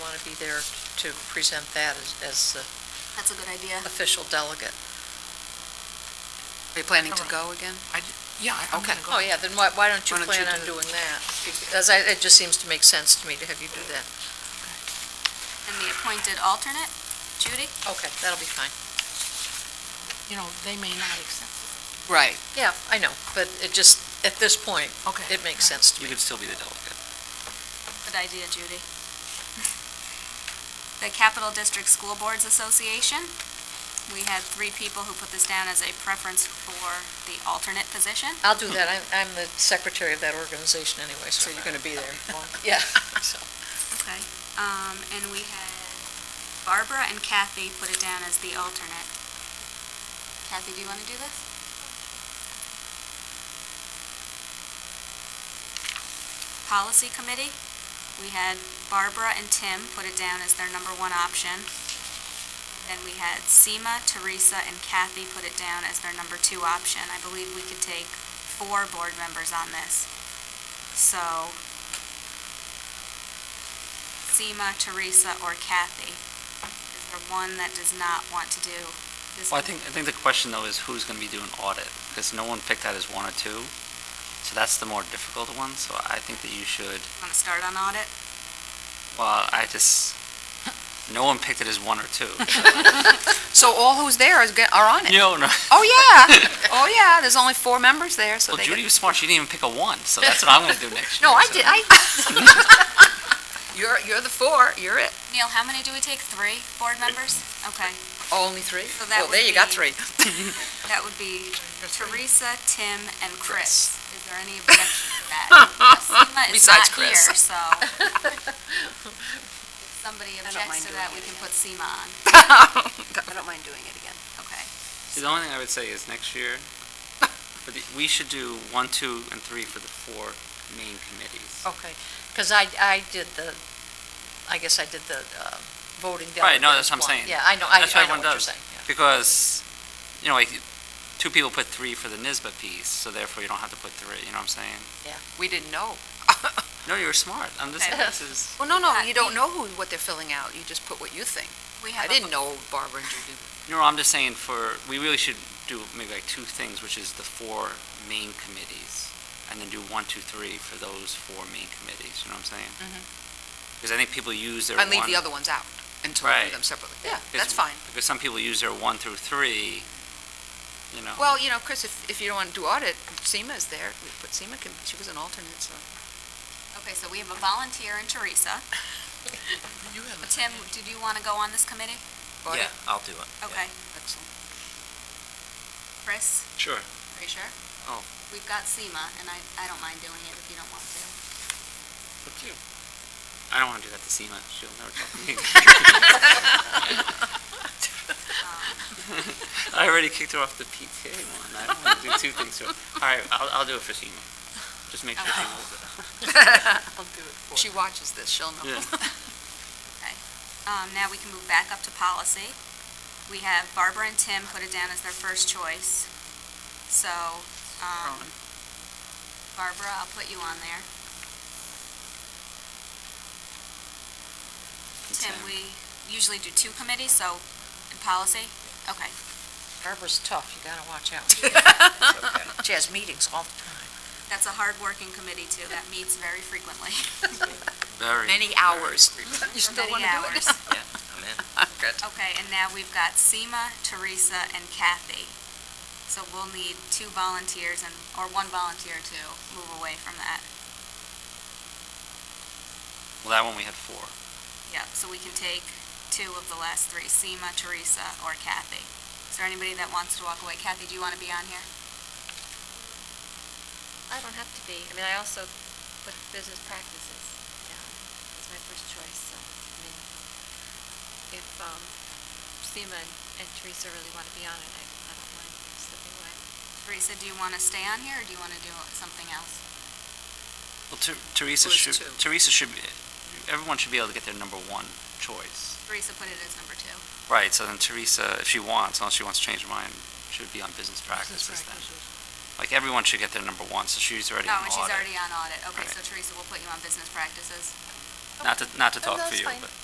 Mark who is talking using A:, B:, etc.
A: be there to present that as, as the
B: That's a good idea.
C: Mm-hmm.
A: official delegate.
C: Are you planning to go again?
D: Yeah, I- I'm
C: Okay.
A: Oh,
D: going to go.
A: yeah, then why, why don't you
C: Why don't you
A: plan on
C: do-
A: doing that? Because I, it just seems to make sense to me to have you do that.
B: And the appointed alternate, Judy?
A: Okay, that'll be fine.
D: You know, they may not accept.
C: Right.
A: Yeah, I know, but it just, at this point,
D: Okay.
A: it makes sense to
E: You
A: me.
E: could still be the delegate.
B: Good idea, Judy. The Capital District School Boards Association, we had three people who put this down as a preference for the alternate position.
A: I'll do that. I'm, I'm the secretary of that organization anyway, so you're going to be there. Yeah, so,
B: Okay. Um, and we had Barbara and Kathy put it down as the alternate. Kathy, do you want to do this? Policy Committee, we had Barbara and Tim put it down as their number one option. Then we had Seema, Teresa, and Kathy put it down as their number two option. I believe we could take four board members on this. So, Seema, Teresa, or Kathy? Is there one that does not want to do this?
E: Well, I think, I think the question though is who's going to be doing audit? Because no one picked that as one or two. So that's the more difficult one. So I think that you should,
B: Want to start on audit?
E: well, I just, no one picked it as one or two.
C: So all who's there is, go- are on it?
E: No, no.
C: Oh, yeah. Oh, yeah, there's only four members there, so
E: Well,
C: they
E: Judy
C: get...
E: was smart. She didn't even pick a one. So that's what I'm going to do next year.
C: No, I
E: so-
C: did, I... You're, you're the four, you're it.
B: Neil, how many do we take? Three board members? Okay,
C: Oh, Only three?
B: So that
C: Well, there
B: would
C: you got
B: be-
C: three.
B: that would be Teresa, Tim, and
C: Chris.
B: Chris. Is there any objection to that? Now, Seema is
C: Besides
B: not
C: Chris.
B: here, so. If somebody objects
C: mind
B: to
C: doing
B: that,
C: it
B: we can put Seema on.
C: I don't mind doing it again.
B: Okay.
E: The only thing I would say is next year, for the- we should do one, two, and three for the four main committees.
A: okay. Because I, I did the, I guess I did the uh, voting delegate.
E: Right, no, that's
A: as
E: what I'm
A: one.
E: saying.
A: Yeah, I know, I I
E: That's what
A: know
E: everyone
A: what you're
E: does.
A: saying. yeah.
E: Because, you know, like, two people put three for the NISBA piece, so therefore you don't have to put three, you know what I'm saying?
C: We didn't know.
E: No, you were smart. I'm just,
B: Okay.
E: this is,
C: Well, no, no,
B: Uh,
C: you don't
B: we-
C: know who, what they're filling out. You just put what you think.
B: We have
C: I
B: a-
C: didn't know Barbara and Judy.
E: no, I'm just saying for, we really should do maybe like two things, which is the four main committees, and then do one, two, three for those four main committees, you know what I'm saying?
A: Mm-hmm.
C: Mhm.
E: Because I think people use their one.
C: And leave the other ones out until we do
E: Right.
C: them separately. Yeah,
E: because-
C: that's fine.
E: Because some people use their one through three, you know.
C: Well, you know, Chris, if, if you don't want to do audit, Seema is there. We put Seema, can- she was an alternate, so...
B: Okay, so we have a volunteer in Teresa.
D: You have a-
B: Tim, did you want to go on this committee?
C: audit,
F: I'll do it.
B: Okay.
C: Excellent.
B: Chris?
E: Sure.
B: Are you sure?
E: Oh.
B: We've got SEMA, and I, I don't mind doing it if you don't want to.
E: I don't want to do that to Seema. She'll never talk to me. I already kicked her off the PTA one. I don't want to do two things to her. All right, I'll, I'll do it for Seema. Just make sure she knows it.
D: I'll do it for
C: She watches this, she'll know.
E: Yeah.
B: Um, now we can move back up to policy. We have Barbara and Tim put it down as their first choice. So, um, Barbara, I'll put you on there. Tim, we usually do two committees, so, in policy? Okay.
A: Barbara's tough, you got to watch out. She has meetings all the time.
B: That's a hard-working committee, too. That meets very frequently.
E: Very.
C: Many hours.
A: You still want
B: Many
A: to do it?
B: hours.
F: I'm in.
C: Good.
B: Okay, and now we've got Seema, Teresa, and Kathy. So we'll need two volunteers and, or one volunteer to move away from that.
E: Well, that one we had four.
B: Yep, so we can take two of the last three, Seema, Teresa, or Kathy. Is there anybody that wants to walk away? Kathy, do you want to be on here?
G: I don't have to be. I mean, I also put business practices down as my first choice, so, I mean, if um, Seema and and Teresa really want to be on it, I I don't mind slipping away.
B: Teresa, do you want to stay on here, or do you want to do something else?
E: Well, Ter-
A: Who
E: Teresa
A: is
E: should,
A: two?
E: Teresa should, be. everyone should be able to get their number one choice.
B: Teresa put it as number two.
E: Right, so then Teresa, if she wants, unless she wants to change her mind, should be on business
D: practice
E: practices then.
D: practices.
E: Like, everyone should get their number one, so she's already in
B: Oh,
E: audit.
B: and she's already on audit. Okay, so
E: Right.
B: Teresa, we'll put you on business practices.
E: Not to, not to
A: No,
E: talk
A: that's
E: for you,
A: fine.
E: but.